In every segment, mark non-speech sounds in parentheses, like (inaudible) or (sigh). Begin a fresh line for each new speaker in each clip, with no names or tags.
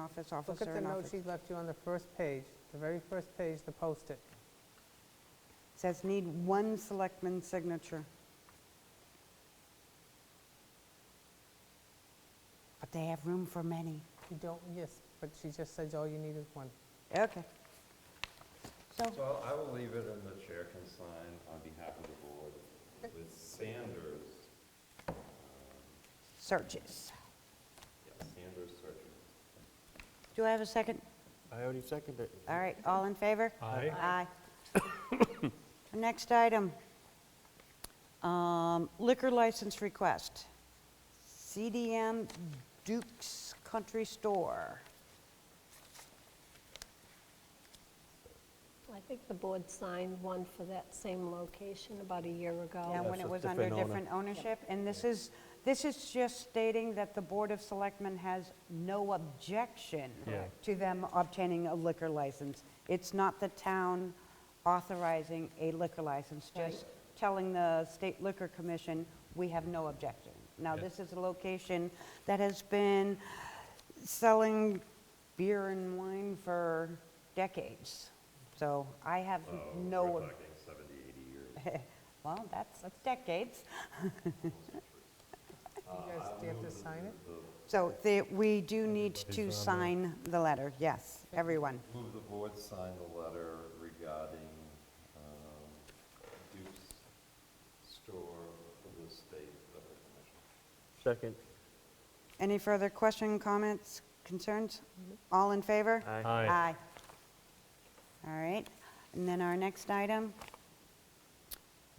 office,
Look at
officer
the
in
note
office.
she left you on the first page, the very first page, the post-it.
Says need one selectman's signature. But they have room for many.
You don't, yes, but she just says all you need is one.
Okay. So,
So I'll- I will leave it and the chair can sign on behalf of the board with Sanders,
searches.
yeah, Sanders searching.
Do I have a second?
I already seconded it.
All right, all in favor?
Aye.
Aye. (coughs) Next item, um, liquor license request. CDM Duke's Country Store.
I think the board signed one for that same location about a year
Yeah,
ago.
when
That's
it
a
was under
different owner.
different ownership. And this is, this is just stating that the Board of Selectmen has no objection
Yeah.
to them obtaining a liquor license. It's not the town authorizing a liquor license, just telling the State Liquor Commission, we have no objection. Now,
Yeah.
this is a location that has been selling beer and wine for decades. So I have
Oh,
no,
We're
ob-
talking 70, 80 years.
well, that's that's decades.
You guys, do you have to sign it?
So the- we do need to
Everybody's on
sign the letter, yes, everyone.
Move the board sign the letter regarding um, Duke's store for the state liquor commission.
Second.
Any further question, comments, concerns? All in favor?
Aye.
Aye.
All right, and then our next item,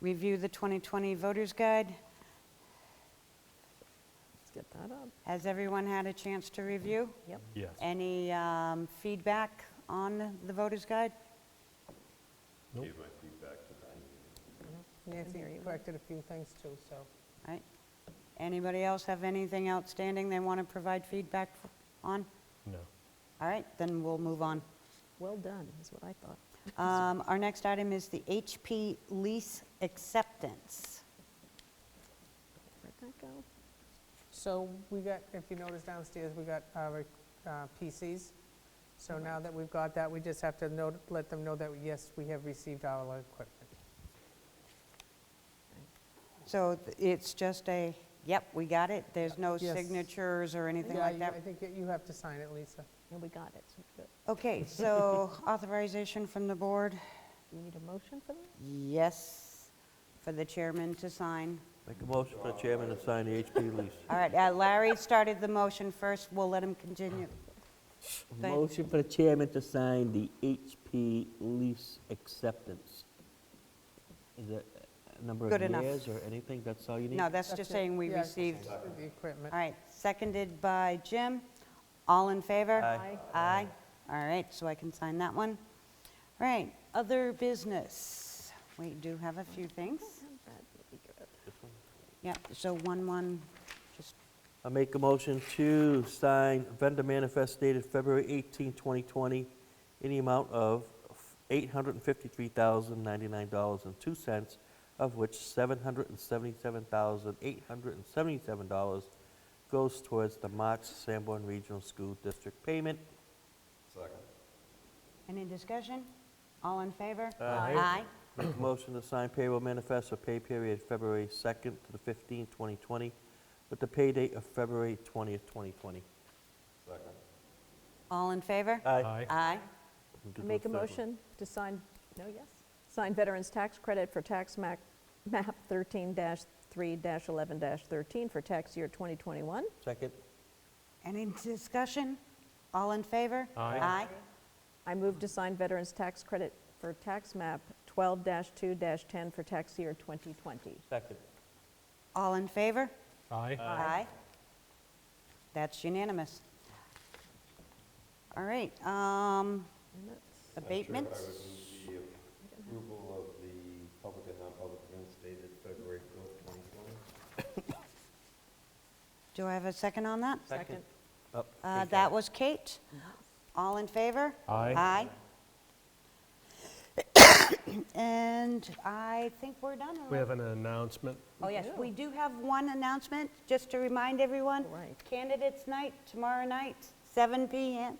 review the 2020 Voters Guide.
Let's get that up.
Has everyone had a chance to review?
Yep.
Yes.
Any um, feedback on the Voters Guide?
Nope.
Gave my feedback to them.
Nancy
There you go.
corrected a few things too, so.
All right. Anybody else have anything outstanding they want to provide feedback f- on?
No.
All right, then we'll move
(laughs)
on.
Well done, is what I thought.
Um, Our next item is the HP lease acceptance.
Where'd that go?
So we got, if you notice downstairs, we got our uh, PCs. So
Mm-hmm.
now that we've got that, we just have to note, let them know that, yes, we have received our equipment.
So th- it's just a, yep, we got it, there's no
Yes.
signatures or anything
Yeah,
like
you- I
that?
think you have to sign it, Lisa.
And we got it, so good.
Okay,
(laughs)
so authorization from the board,
You need a motion for that?
yes, for the chairman to sign.
Make a motion for the chairman to sign the HP lease.
All right, uh, Larry started the motion first, we'll let him continue. (laughs)
Ah,
Thank-
Motion for the chairman to sign the HP lease acceptance. Is it a number
Good
of
enough.
years or anything? That's all you need?
No, that's just
it.
saying we
Yeah,
received. All
The equipment.
right, seconded by Jim, all in favor?
Aye.
Aye. All right, so I can sign that one. All right, other business. We do have a few things.
That'd be good.
Yep, so one, one, just,
I make a motion to sign vendor manifest dated February 18, 2020, in the amount of $853,099.02, of which $777,877 goes towards the March Sanborn Regional School District payment.
Second.
any discussion? All in favor?
Aye.
Aye.
Make a motion to sign payroll manifest for pay period February 2nd to the 15th, 2020, with the pay date of February 20th, 2020.
Second.
All in favor?
Aye.
Aye.
Do
Make a
third one.
motion to sign, no, yes, sign veterans' tax credit for tax map map 13-3-11-13 for tax year 2021.
Second.
Any discussion? All in favor?
Aye.
Aye.
I move to sign veterans' tax credit for tax map 12-2-10 for tax year 2020.
Second.
All in favor?
Aye.
Aye. That's unanimous. All right, um,
I
abatements?
would move the approval of the public and non-public minutes dated February 4th, 2020.
Do I have a second on that?
Second. Up.
Uh,
Take
That was Kate. All in favor?
Aye.
Aye. And I think we're done.
We have an announcement.
Oh, yes, we do have one announcement, just to remind everyone.
Right.
Candidates Night, tomorrow night, 7 PM.